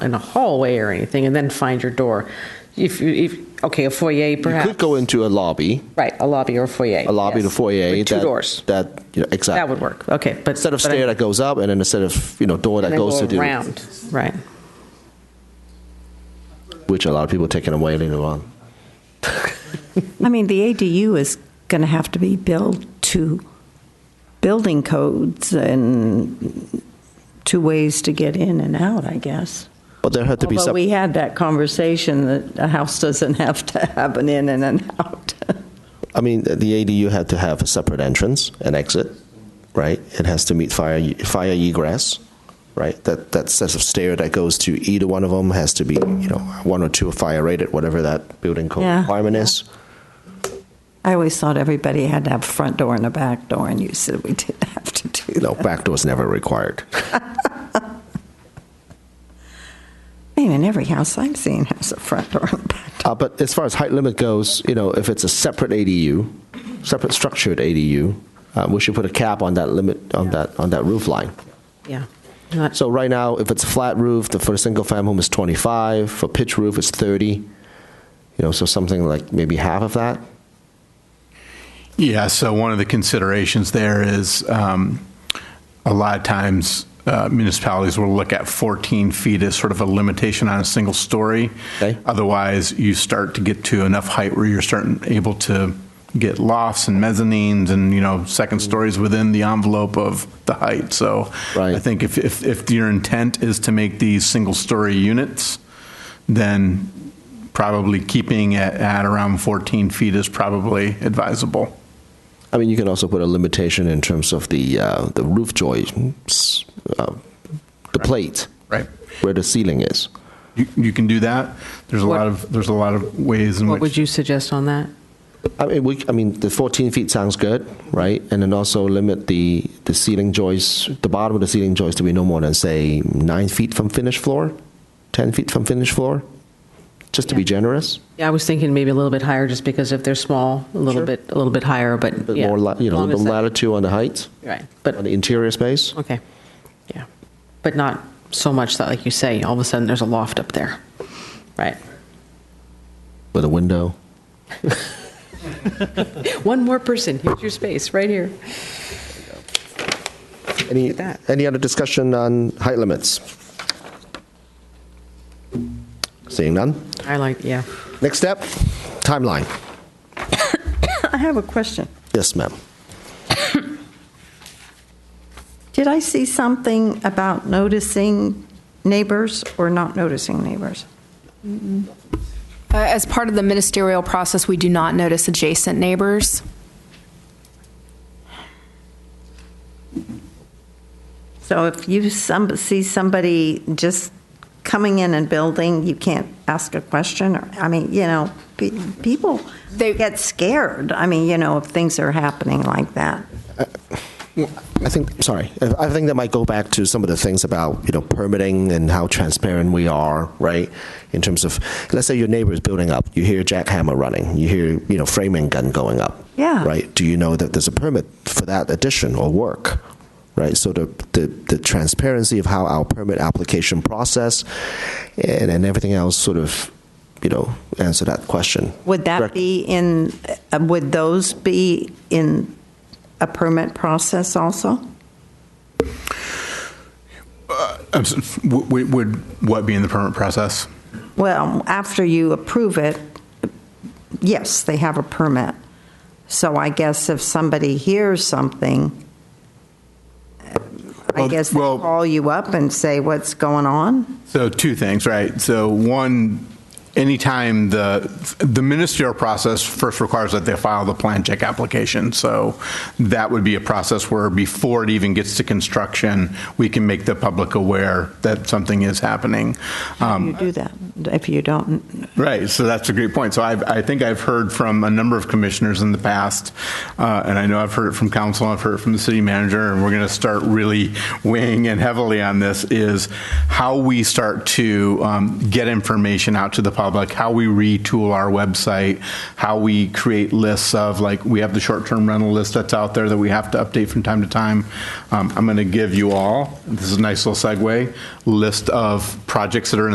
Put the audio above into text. in a hallway or anything, and then find your door. If you, if, okay, a foyer perhaps. You could go into a lobby, Right, a lobby or a foyer. a lobby yes. to foyer. With two that- doors. That, you know, exactly. That would work, okay, but. Instead of but I- stair that goes up and then instead of, you know, door that and then goes go to the. Around, right. Which a lot of people taking away later on. I mean, the ADU is going to have to be built to building codes and two ways to get in and out, I guess. But there had to be Although some. we had that conversation that a house doesn't have to have an in and an out. I mean, the ADU had to have a separate entrance and exit, right? It has to meet fire fire egress, right? That that set of stair that goes to either one of them has to be, you know, one or two fire rated, whatever that building code Yeah. requirement is. I always thought everybody had to have a front door and a back door, and you said we didn't have to do that. No, back door's never required. I mean, every house I've seen has a front door and a back door. Uh, but as far as height limit goes, you know, if it's a separate ADU, separate structured ADU, uh, we should put a cap on that limit on that on that roof line. Yeah. Not- So right now, if it's a flat roof, the, for a single family home is 25, for pitch roof it's 30. You know, so something like maybe half of that. Yeah, so one of the considerations there is um, a lot of times uh, municipalities will look at 14 feet as sort of a limitation on a single story. Okay. Otherwise, you start to get to enough height where you're starting, able to get lofts and mezzanines and, you know, second Mm. stories within the envelope of the height. So Right. I think if, if, if your intent is to make these single-story units, then probably keeping it at around 14 feet is probably advisable. I mean, you can also put a limitation in terms of the uh, the roof joists, uh, the plate, Right. where the ceiling is. You, you can do that. There's a What- lot of, there's a lot of ways in What would which, you suggest on that? I mean, we, I mean, the 14 feet sounds good, right? And then also limit the, the ceiling joists, the bottom of the ceiling joist to be no more than, say, nine feet from finished floor, 10 feet from finished floor, just to be Yeah. generous. Yeah, I was thinking maybe a little bit higher, just because if they're small, a little Sure. bit, a little bit higher, but bit yeah. more, la- you know, a long little as bit that- latitude on the height, Right, on but, the interior space. okay, yeah. But not so much that, like you say, all of a sudden there's a loft up there, right? With a window. One more person, here's your space, right here. Any, at that. any other discussion on height limits? Seeing none. I like, yeah. Next step, timeline. I have a question. Yes, ma'am. Did I see something about noticing neighbors or not noticing neighbors? Uh, As part of the ministerial process, we do not notice adjacent neighbors. So if you some- see somebody just coming in and building, you can't ask a question? or I mean, you know, pe- people They- get scared, I mean, you know, if things are happening like that. I think, sorry, I I think that might go back to some of the things about, you know, permitting and how transparent we are, right? In terms of, let's say your neighbor is building up, you hear jackhammer running, you hear, you know, framing gun going up. Yeah. Right? Do you know that there's a permit for that addition or work? Right? So the, the, the transparency of how our permit application process and, and everything else sort of, you know, answer that question. Would that Correct. be in, uh, would those be in a permit process also? I'm s- w- w- would, what be in the permit process? Well, after you approve it, yes, they have a permit. So I guess if somebody hears something, I Well, guess they well- call you up and say what's going on? So two things, right? So one, anytime the, the ministerial process first requires that they file the plan check application. So that would be a process where before it even gets to construction, we can make the public aware that something is happening. Um, You do that. If you don't, Right, so that's a great point. So I've, I think I've heard from a number of commissioners in the past, uh, and I know I've heard it from council, I've heard it from the city manager, and we're going to start really weighing in heavily on this, is how we start to um, get information out to the public, how we retool our website, how we create lists of, like, we have the short-term rental list that's out there that we have to update from time to time. Um, I'm going to give you all, this is a nice little segue, list of projects that are in